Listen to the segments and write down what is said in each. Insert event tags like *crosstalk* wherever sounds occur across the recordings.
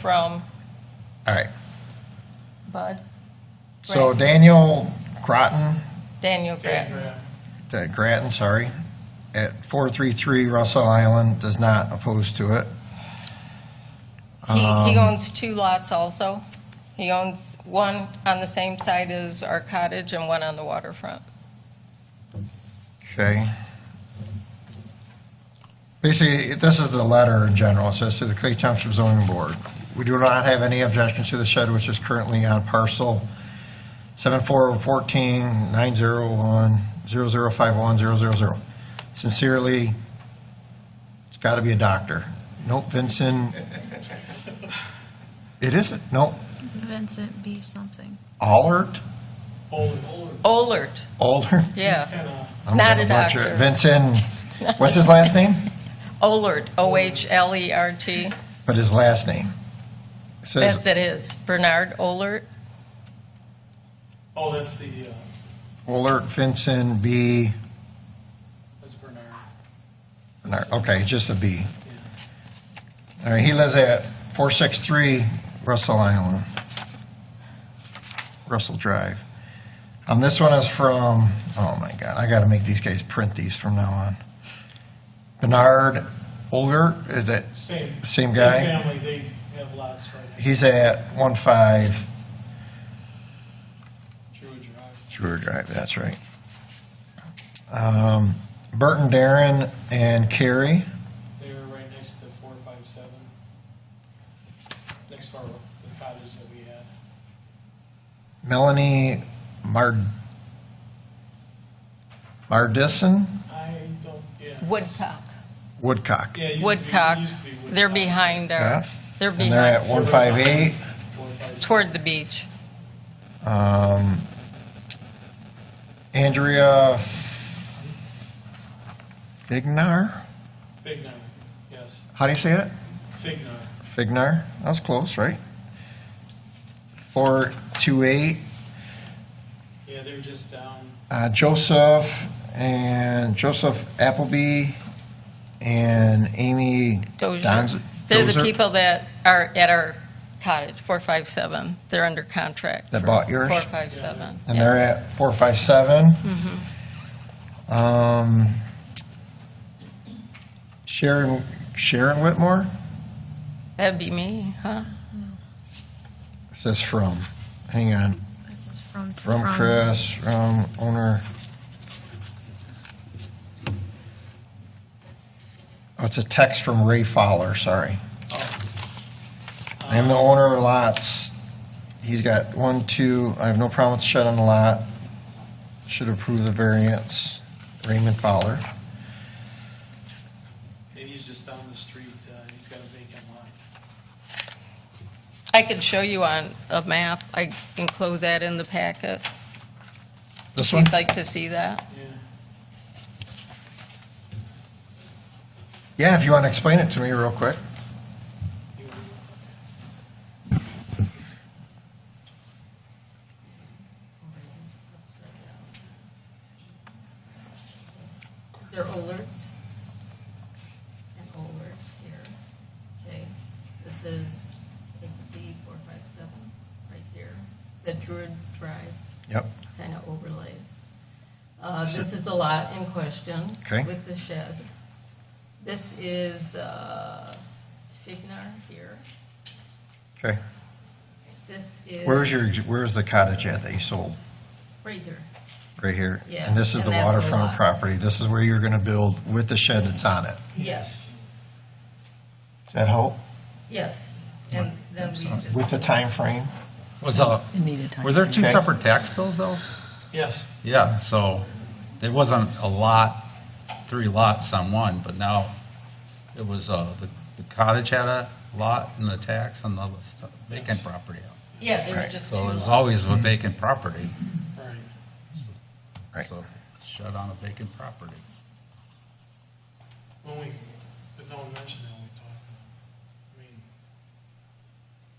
from All right. Bud, So Right. Daniel Groton, Daniel Grant. that Grattan, sorry, at 433 Russell Island does not oppose to it. He, he Um, owns two lots also. He owns one on the same side as our cottage and one on the waterfront. Okay. Basically, this is the letter in general. It says to the Clay Township Zoning Board, we do not have any objections to the shed which is currently on parcel oh 74149010051000. Sincerely, it's got to be a doctor. Nope, Vincent. It isn't. Nope. Vincent B. something. Allert? Olert, Allert? yeah. I'm Not gonna a butcher it. doctor. *laughs* Vincent, what's his last name? Olert, E O-H-L-E-R-T. But his last name. It says, That's it is. Bernard Olert. Oh, that's the, uh, Willard Vincent B. that's Bernard. no, Okay, just a B. All right, he lives at 463 Russell Island, Russell Drive. Um, this one is from, oh my God, I gotta make these guys print these from now on. Bernard Olger, is it, Same. Same guy? Same family, they have lots right next he's at 15 to Druid Drive. Drew Drive, that's right. Um, Burton Darren and Carrie. They're right next to four five seven. Next to our, the cottage that we had. Melanie Mard Mardison I don't, yeah. Woodcock. Woodcock. Yeah, it used to be- it Woodcock. used to be Woodcock. They're behind Yeah. our, they're And they're at behind, one five eight. Four, five, seven. toward the beach. Um, Andrea Fignar. Fignar, yes, How do you say it? Fignar. Fignar. That was close, right? Four two eight. Yeah, they're just down, Uh, Joseph and Joseph Appleby and Amy Donz- Dozier. They're the Dozer people that are at our cottage, 457. They're under contract. That for bought yours? 457. And yeah. they're at four five seven. Um, Sharon, Sharon Whitmore That'd be me, huh? says from, hang on, This is from. from Chris, from owner. Oh, it's a text from Ray Fowler, sorry. I am the owner of lots. He's got one, two, I have no problem with shed on the lot. Should approve the variance. Raymond Fowler. and he's just down the street, uh, he's got a vacant lot. I could show you on a map. I enclose that in the packet. This If one? you'd like to see that. Yeah, Yeah, if you want to explain it to me real quick. he would- Is there alerts? An alert here, okay, this is, I think, B four five seven, right here, the Druid Drive Yep. kind of overlay. Uh, Is this it- is the lot in question. Okay. With the shed. This is, uh, Fignar here, Okay. this is. Where's your, where's the cottage at that you sold? Right here, Right here? Yeah, And this is and the that's the waterfront lot. property. This is where you're going to build with the shed that's on it. yes, Does that help? yes, and then we just. With the time frame? Was a, were there two Okay. separate tax bills though? Yes, Yeah, so there wasn't a lot, three lots on one, but now it was, uh, the the cottage had a lot and a tax on the st- vacant property. Yeah, there were Right, just two So there's lots. always a vacant property. right. Right. So shut on a vacant property. When we, but no one mentioned that when we talked. I mean,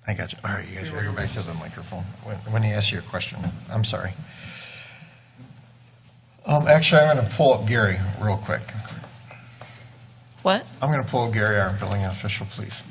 I got you. All right, you guys gotta go back to the microphone when, when he asks you a question. I'm sorry. Um, actually, I'm gonna pull up Gary real quick. What? I'm gonna pull up Gary, our building official, please.